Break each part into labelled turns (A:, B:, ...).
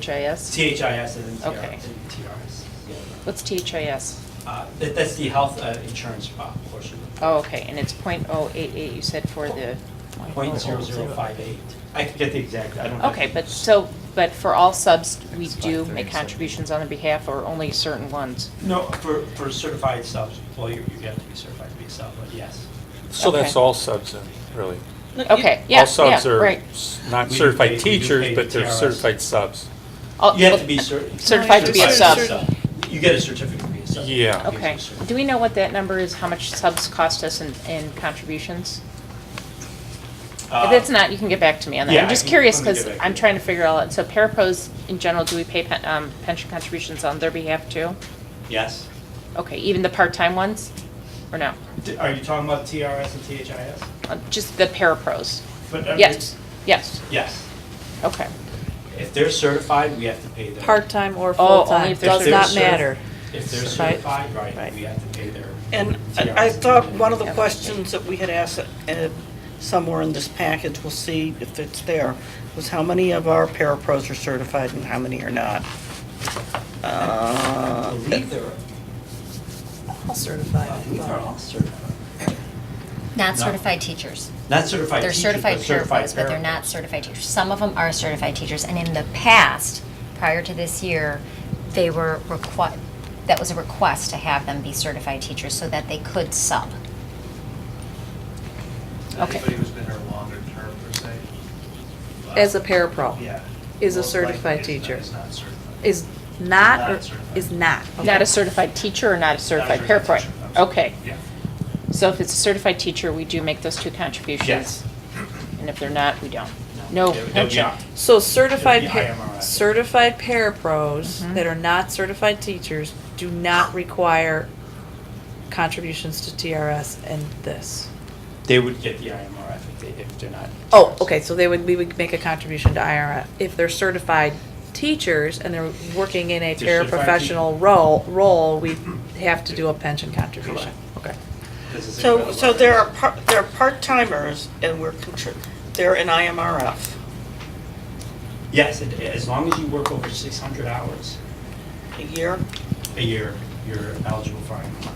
A: THIS?
B: CHIS and TR
A: Okay.
B: and TRS. yeah.
A: What's THIS?
B: Uh, that- That's the health uh, insurance uh, portion.
A: Oh, okay, and it's .088, you said for the... oh
B: Point zero zero five eight. I can get the exact, I don't. have-
A: Okay, but so, but for all subs, we
C: It's
A: do
C: like
A: make
C: 37.
A: contributions on their behalf or only certain ones?
B: No, for, for certified subs, well, you, you have to be certified to be a sub, but yes.
D: So that's
A: Okay.
D: all subs then, really?
A: Okay, yeah, yeah, right.
D: All subs are not
B: We do pay- we
D: certified
B: do
D: teachers,
B: pay
D: but they're
B: TRS.
D: certified subs.
A: All-
B: You have to be cer-
A: Oh, Certified to be a
B: certified
A: sub.
B: You get a certificate to be a sub.
D: Yeah.
B: Gives you a
A: Okay,
B: certificate.
A: do we know what that number is, how much subs cost us in, in contributions?
B: Uh,
A: If it's not, you can get back to me on that.
B: yeah,
A: I'm
B: I
A: just
B: can-
A: curious,
B: let me get
A: because
B: back to
A: I'm
B: you.
A: trying to figure all out, so parapros in general, do we pay pen- um, pension contributions on their behalf too?
B: Yes.
A: Okay, even the part-time ones, or no?
B: D- Are you talking about TRS and THIS?
A: Uh, Just the parapros?
B: But, uh,
A: Yes, yes,
B: Yes.
A: okay.
B: If they're certified, we have to pay their.
E: Part-time or
A: Oh, only
E: full-time,
A: if they're
E: does
B: If they're
E: not
B: certi-
E: matter.
B: If they're
E: Right.
B: certified, right,
E: Right.
B: we have to pay their.
F: And I I thought one of the questions that we had asked uh, somewhere in this package, we'll see if it's there, was how many of our parapros are certified and how many are not?
B: I
F: Uh,
B: believe they're,
E: All
B: I believe they're all certified.
G: Not
B: No.
G: certified teachers.
B: Not certified
G: They're
B: teachers,
G: certified
B: but certified
G: parapros, but they're
B: parapros.
G: not certified teachers. Some of them are certified teachers, and in the past, prior to this year, they were requi, that was a request to have them be certified teachers so that they could sub.
A: Okay.
H: Anybody who's been here longer term per se?
E: As a parapro.
H: Yeah.
E: Is a
H: Most likely
E: certified
H: it's not-
E: teacher.
H: It's not certified.
E: Is not, or
H: Not certified.
E: is not.
A: Not
E: okay.
A: a certified teacher or not a certified
H: Not a
A: parapro?
H: teacher, I'm sorry.
A: Okay,
H: Yeah.
A: so if it's a certified teacher, we do make those two contributions?
B: Yes.
A: And if they're not, we don't? No,
B: They're-
A: no
B: they're
A: check.
B: not.
E: So certified,
B: It'll be
E: par-
B: IMRI.
E: certified parapros that are not certified teachers do not require contributions to TRS and this.
B: They would get the IMRF if they, if they're not.
E: Oh, okay, so they would, we would make a contribution to IRF. If they're certified teachers and they're working in a
B: They're certified
E: paraprofessional role, role, we have to do a pension contribution. Okay.
B: This is
F: So,
B: irrelevant.
F: so there are, par- there are part-timers and we're, contri- they're in IMRF.
B: Yes, it- as long as you work over six hundred hours
F: a year.
B: a year, you're eligible for IMRF.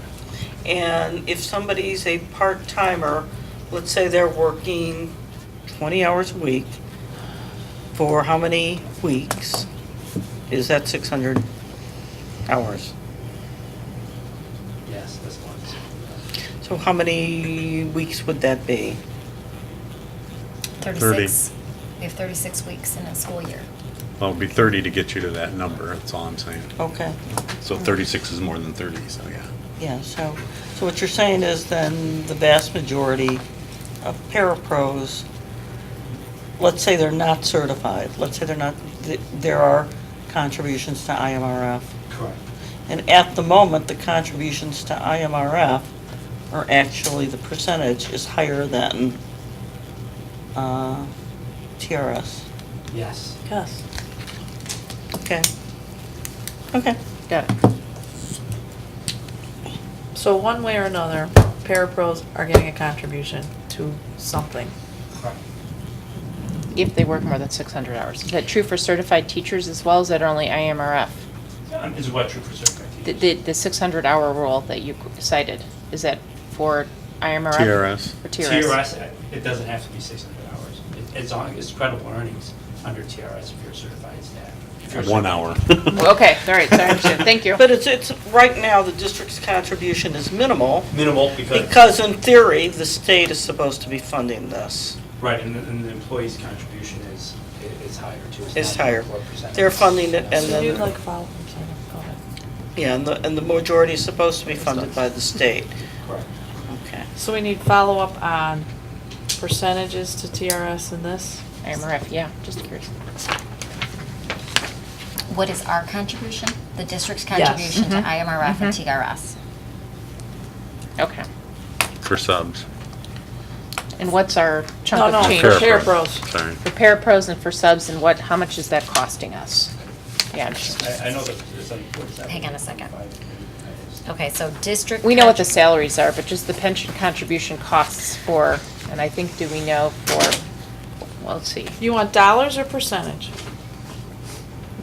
F: And if somebody's a part-timer, let's say they're working 20 hours a week, for how many weeks? Is that 600 hours?
B: Yes, that's one.
F: So how many weeks would that be?
G: Thirty-six. We have thirty-six weeks in a school year.
I: Well, it'd be 30 to get you to that number, that's all I'm saying.
F: Okay,
I: So 36 is more than 30, so yeah.
F: yeah, so, so what you're saying is then the vast majority of parapros, let's say they're not certified, let's say they're not, th- there are contributions to IMRF.
B: Correct.
F: And at the moment, the contributions to IMRF are actually, the percentage is higher than uh, TRS.
B: Yes.
E: Yes.
F: Okay. Okay.
A: Got it.
E: So one way or another, parapros are getting a contribution to something.
B: Correct.
A: If they work more than 600 hours. Is that true for certified teachers as well, as that only IMRF?
B: Um, Is what true for certified
A: The,
B: teachers?
A: the the 600-hour rule that you cited, is that for IMRF?
I: TRS.
A: Or TRS?
B: TRS, uh, it doesn't have to be six hundred hours. It- It's on, it's credible earnings under TRS if you're certified staff. If you're
I: One
B: certified-
I: hour.
A: Well, Okay, all right, sorry, I understand. thank you.
F: But it's, it's, right now, the district's contribution is minimal
B: Minimal because.
F: because in theory, the state is supposed to be funding this.
B: Right, and the, and the employee's contribution is, i- is higher too.
F: It's
B: not
F: higher.
B: 24%.
F: They're funding it and
E: So
F: then-
E: you'd like follow, I'm sorry, go ahead.
F: Yeah, and the, and the majority is supposed to be funded by the state.
B: Correct.
F: Okay.
E: So we need follow-up on percentages to TRS and this?
A: IMRF, yeah, just curious.
G: What is our contribution? The district's
E: Yes.
G: contribution
A: Mm-hmm.
G: to IMRF and TRS.
A: Okay.
I: For subs.
A: And what's our chunk
E: No,
A: of
E: no,
A: change?
E: Oh, for
I: Parapro.
E: parapros.
I: Sorry.
A: For parapros and for subs, and what, how much is that costing us? Yeah, I'm sure.
B: I, I know that it's under forty-seven.
G: Hang on a second.
B: Five.
G: Okay, so district.
A: We know what the
G: contrib-
A: salaries are, but just the pension contribution costs for, and I think, do we know for, well, let's see.
E: You want dollars or percentage?